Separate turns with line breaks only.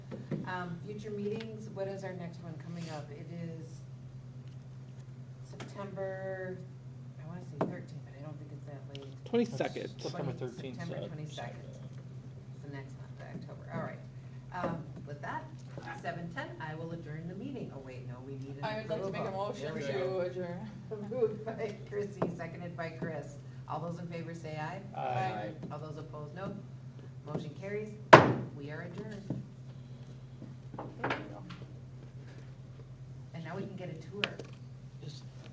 Um, future meetings, what is our next one coming up? It is September, I wanna say thirteenth, but I don't think it's that late.
Twenty-second.
September
September thirteenth.
September 22nd. It's the next month, October, all right. Um, with that, seven ten, I will adjourn the meeting. Oh, wait, no, we need an
I would like to make a
approval.
motion
There we
to
go.
adjourn.
Moved by Chrissy, seconded by Chris. All those in favor say aye.
Aye.
All those opposed, no.